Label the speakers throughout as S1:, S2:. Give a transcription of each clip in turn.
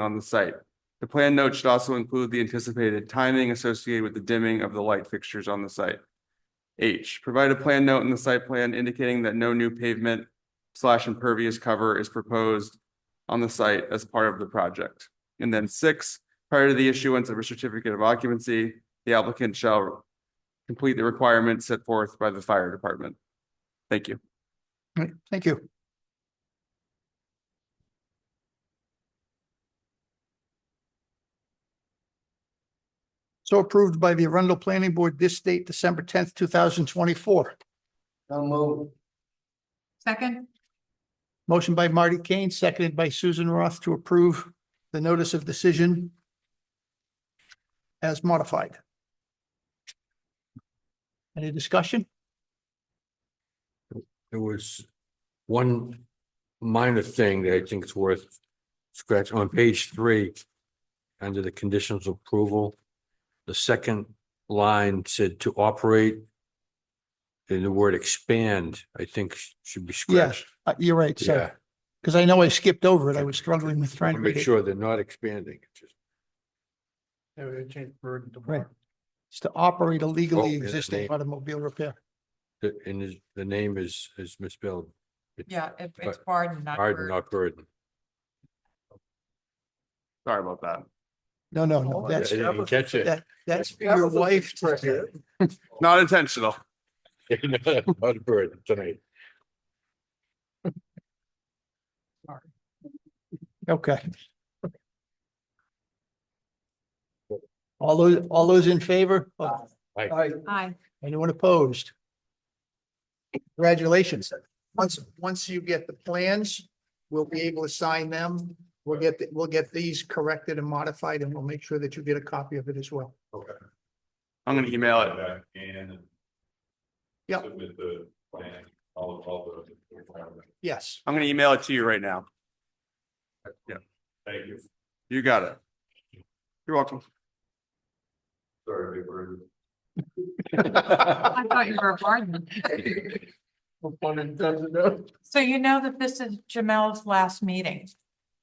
S1: on the site. The plan note should also include the anticipated timing associated with the dimming of the light fixtures on the site. H, provide a plan note in the site plan indicating that no new pavement slash impervious cover is proposed on the site as part of the project. And then six, prior to the issuance of a certificate of occupancy, the applicant shall complete the requirements set forth by the fire department. Thank you.
S2: All right, thank you. So approved by the Arundel Planning Board this date, December tenth, two thousand twenty-four.
S3: So move.
S4: Second,
S2: Motion by Marty Kane, seconded by Susan Roth to approve the notice of decision as modified. Any discussion?
S5: There was one minor thing that I think is worth scratch on page three. Under the conditions of approval, the second line said to operate. And the word expand, I think should be scratched.
S2: Uh, You're right, so, because I know I skipped over it. I was struggling with trying
S5: Wanna
S2: to
S5: Make
S2: read it.
S5: sure they're not expanding. Just-
S2: Right. It's to operate a legally
S5: Oh, yeah,
S2: existing
S5: they-
S2: automobile repair.
S5: the- And is- the name is, is misspelled. It's
S4: yeah, it- it's
S5: But-
S4: Barden, not
S5: Arden,
S4: Burden.
S5: not burden.
S1: Sorry about that.
S2: No, no,
S3: Oh,
S2: no,
S5: I
S2: that's,
S5: didn't catch it.
S2: that, that's for your wife. to say.
S1: Not intentional.
S5: Not a burden tonight.
S2: Okay. All those, all those in favor?
S5: Aye.
S4: Aye,
S2: Anyone opposed? Congratulations. Once, once you get the plans, we'll be able to sign them. We'll get, the- we'll get these corrected and modified and we'll make sure that you get a copy of it as well.
S6: Okay.
S1: I'm gonna email it.
S6: And.
S2: Yeah.
S6: With the plan, all of, all the requirements.
S2: Yes.
S1: I'm gonna email it to you right now.
S6: Thank you.
S1: You got it. You're welcome.
S6: Sorry, big bird.
S4: I thought you were a Barden. So you know that this is Jamel's last meeting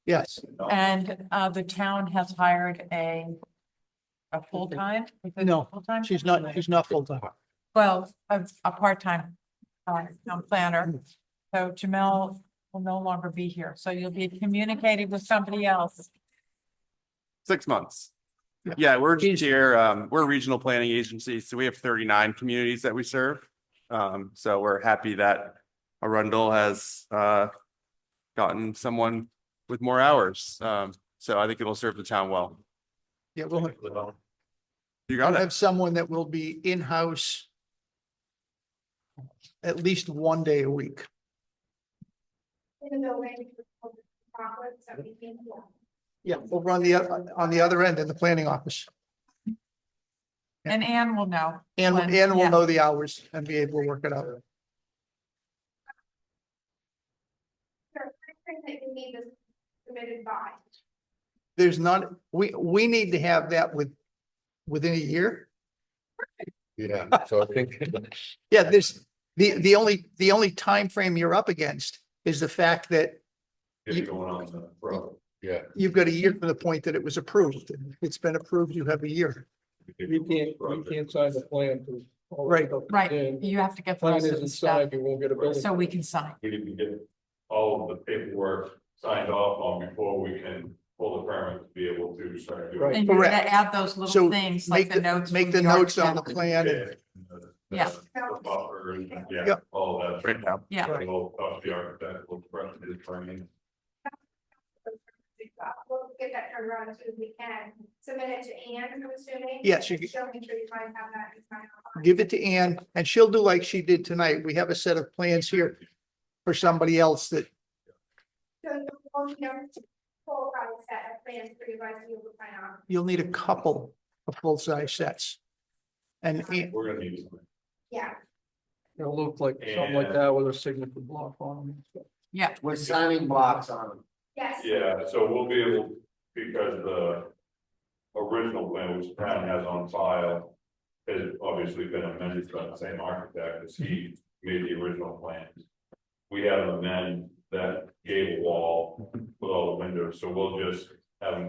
S2: Yes.
S4: and uh the town has hired a a full-time? Is it
S2: No,
S4: full-time?
S2: She's not, she's not full-time.
S4: Well, a a part-time uh town planner. So Jamel will no longer be here, so you'll be communicating with somebody else.
S1: Six months.
S2: Yeah.
S1: Yeah, we're just
S2: Easy.
S1: here, um, we're a regional planning agency, so we have thirty-nine communities that we serve. Um, so we're happy that Arundel has, uh, gotten someone with more hours. Um, so I think it'll serve the town well.
S2: Yeah, we'll have-
S1: You got
S2: We'll
S1: it.
S2: have someone that will be in-house at least one day a week.
S7: in the building for profits that we can.
S2: Yeah. Over on the, on the other end in the planning office. Yeah.
S4: And Ann will know.
S2: And,
S4: When-
S2: and we'll
S4: yeah.
S2: know the hours and be able to work it out.
S7: Sure, I think that you need this submitted by.
S2: There's not, we, we need to have that with, within a year.
S5: Yeah, so I think.
S2: Yeah, this, the, the only, the only time frame you're up against is the fact that
S6: It's going on the road.
S5: Yeah.
S2: you've got a year from the point that it was approved. It's been approved, you have a year.
S8: You can't, you can't sign the plan to.
S2: Right.
S8: And
S4: Right, you have to get. the
S8: Plan
S4: rest of
S8: isn't
S4: the stuff
S8: signed, you won't get a building.
S4: So we can sign.
S6: We didn't get all of the paperwork signed off on before we can pull the permit to be able to start doing.
S8: Right.
S4: And you're gonna
S2: Correct.
S4: add those
S2: So
S4: little things like
S2: Make
S4: the notes.
S2: Make the
S4: from
S2: notes on the
S4: architect.
S2: plan. and-
S6: the-
S4: Yeah.
S6: The buffer and, yeah,
S2: Yep.
S6: all of that.
S1: Right now.
S4: Yeah,
S6: And we'll talk to the architect, we'll prep his training.
S7: We'll get that turned around as soon as we can. Submit it to Anne, I'm assuming.
S2: Yes, you
S7: And
S2: can-
S7: She'll make sure you find out that. it's not on.
S2: give it to Ann and she'll do like she did tonight. We have a set of plans here for somebody else that,
S7: So you'll, you know, full size set of plans for you guys to be able to sign off.
S2: you'll need a couple of full-size sets. And Ann-
S6: We're gonna need something.
S7: Yeah,
S8: It'll look like something like that with a signature block on it.
S4: yeah.
S3: With signing blocks on them.
S7: yes.
S6: Yeah, so we'll be able, because the original plan which Brown has on file. Has obviously been amended by the same architect as he made the original plans. We have an amend that gable wall with all the windows, so we'll just have him